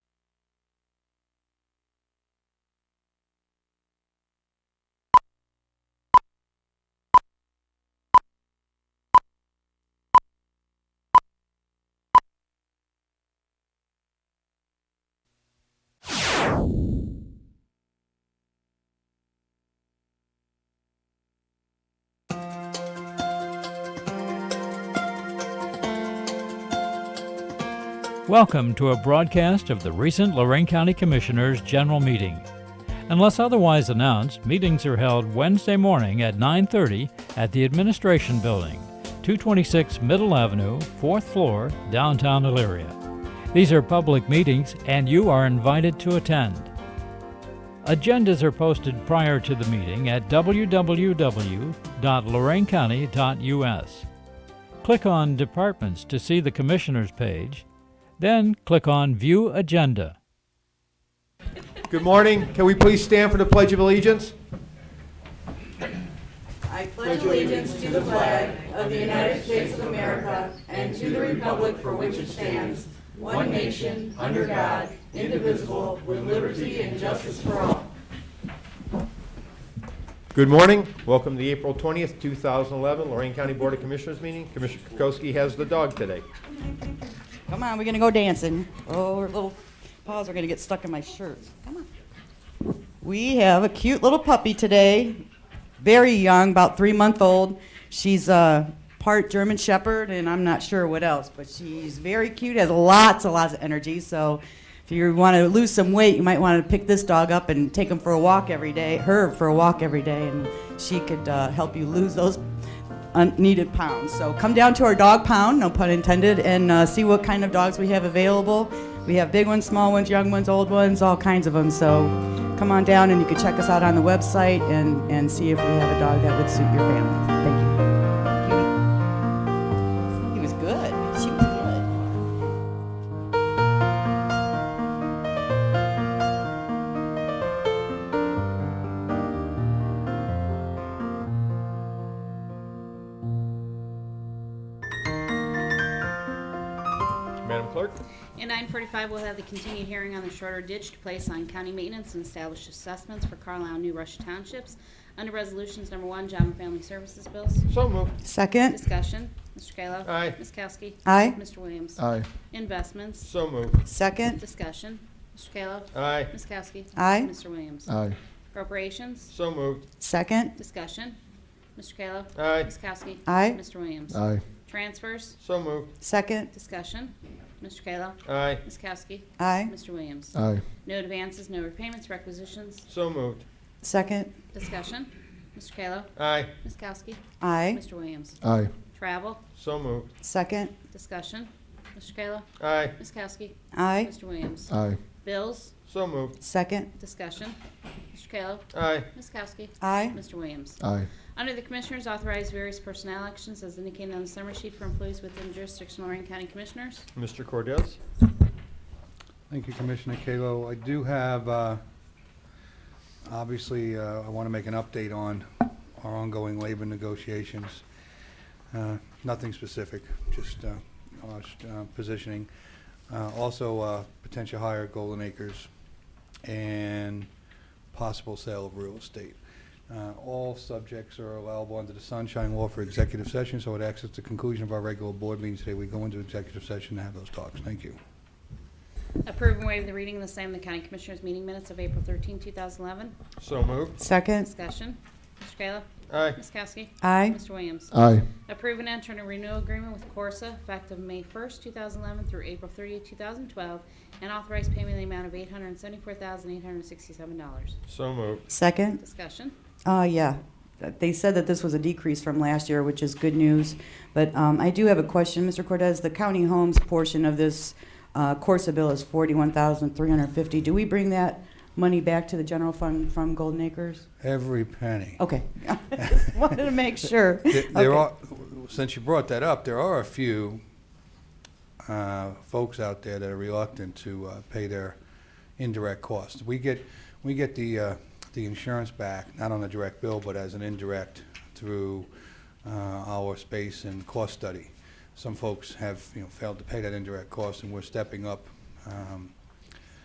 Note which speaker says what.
Speaker 1: Welcome to a broadcast of the recent Lorraine County Commissioners' General Meeting. Unless otherwise announced, meetings are held Wednesday morning at 9:30 at the Administration Building, 226 Middle Avenue, 4th floor, downtown Elyria. These are public meetings and you are invited to attend. Agendas are posted prior to the meeting at www.loraincounty.us. Click on Departments to see the Commissioners page, then click on View Agenda.
Speaker 2: Good morning. Can we please stand for the Pledge of Allegiance? Good morning. Welcome to the April 20th, 2011 Lorraine County Board of Commissioners meeting. Commissioner Kokoski has the dog today.
Speaker 3: Come on, we're gonna go dancing. Oh, her little paws are gonna get stuck in my shirt. Come on. We have a cute little puppy today, very young, about three month old. She's a part German Shepherd, and I'm not sure what else, but she's very cute, has lots and lots of energy. So if you want to lose some weight, you might want to pick this dog up and take him for a walk every day, her for a walk every day, and she could uh, help you lose those unneeded pounds. So come down to our dog pound, no pun intended, and uh, see what kind of dogs we have available. We have big ones, small ones, young ones, old ones, all kinds of them. So come on down and you can check us out on the website and, and see if we have a dog that would suit your family. Thank you. Cutie. He was good. She was good.
Speaker 2: Madam Clerk?
Speaker 4: At nine forty-five, we'll have the continued hearing on the shorter ditch to place on county maintenance and establish assessments for Carlisle and New Russia Townships. Under Resolutions Number One, Job and Family Services Bills.
Speaker 2: So moved.
Speaker 3: Second.
Speaker 4: Discussion, Mr. Kayla.
Speaker 2: Aye.
Speaker 4: Ms. Kowski.
Speaker 3: Aye.
Speaker 4: Mr. Williams.
Speaker 5: Aye,
Speaker 4: Investments,
Speaker 2: So moved.
Speaker 3: Second.
Speaker 4: discussion, Mr. Kayla.
Speaker 2: Aye.
Speaker 4: Ms. Kowski.
Speaker 3: Aye.
Speaker 4: Mr. Williams.
Speaker 5: aye,
Speaker 4: Appropriations,
Speaker 2: So moved.
Speaker 3: Second.
Speaker 4: discussion, Mr. Kayla.
Speaker 2: Aye.
Speaker 4: Ms. Kowski.
Speaker 3: Aye.
Speaker 4: Mr. Williams.
Speaker 5: aye,
Speaker 4: Transfers,
Speaker 2: So moved.
Speaker 3: Second.
Speaker 4: discussion, Mr. Kayla.
Speaker 2: Aye.
Speaker 4: Ms. Kowski.
Speaker 3: Aye.
Speaker 4: Mr. Williams.
Speaker 5: aye,
Speaker 4: No advances, no repayments, requisitions,
Speaker 2: So moved.
Speaker 3: Second.
Speaker 4: Discussion. Mr. Kayla.
Speaker 2: Aye.
Speaker 4: Ms. Kowski.
Speaker 3: Aye.
Speaker 4: Mr. Williams.
Speaker 5: aye,
Speaker 4: Travel.
Speaker 2: So moved.
Speaker 3: Second.
Speaker 4: Discussion. Mr. Kayla.
Speaker 2: Aye.
Speaker 4: Ms. Kowski.
Speaker 3: Aye.
Speaker 4: Mr. Williams.
Speaker 5: aye,
Speaker 4: Bills.
Speaker 2: So moved.
Speaker 3: Second.
Speaker 4: Discussion. Mr. Kayla.
Speaker 2: Aye.
Speaker 4: Ms. Kowski.
Speaker 3: Aye.
Speaker 4: Mr. Williams.
Speaker 5: aye,
Speaker 4: Under the Commissioners, authorize various personnel actions as indicated on the summary sheet for employees within jurisdiction of Lorraine County Commissioners.
Speaker 2: Mr. Cordez?
Speaker 6: Thank you, Commissioner Kalo. I do have, uh, obviously, uh, I want to make an update on our ongoing labor negotiations. Uh, Nothing specific, just uh, uh, st- uh, positioning. Uh, Also, uh, potential hire at Golden Acres and possible sale of real estate. Uh, All subjects are allowable under the sunshine law for executive session, so it acts as the conclusion of our regular board meeting today. We go into executive session to have those talks. Thank you.
Speaker 4: Approve and waive the reading of the same in the County Commissioners meeting minutes of April 13, 2011.
Speaker 2: So moved.
Speaker 3: Second.
Speaker 4: Discussion. Mr. Kayla.
Speaker 2: Aye.
Speaker 4: Ms. Kowski.
Speaker 3: Aye.
Speaker 4: Mr. Williams.
Speaker 5: aye,
Speaker 4: Approve and enter a renewal agreement with Corsa effective May 1st, 2011 through April 30th, 2012, and authorize payment in the amount of $874,867.
Speaker 2: So moved.
Speaker 3: Second.
Speaker 4: Discussion.
Speaker 3: Uh, yeah. They said that this was a decrease from last year, which is good news. But um, I do have a question, Mr. Cortez. The county homes portion of this uh, Corsa bill is forty-one thousand three hundred fifty. Do we bring that money back to the general fund from Golden Acres?
Speaker 6: Every penny.
Speaker 3: Okay, Just wanted to make sure.
Speaker 6: There- There
Speaker 3: Okay.
Speaker 6: are, since you brought that up, there are a few uh, folks out there that are reluctant to uh, pay their indirect costs. We get, we get the, uh, the insurance back, not on a direct bill, but as an indirect through uh, our space and cost study. Some folks have, you know, failed to pay that indirect cost, and we're stepping up um,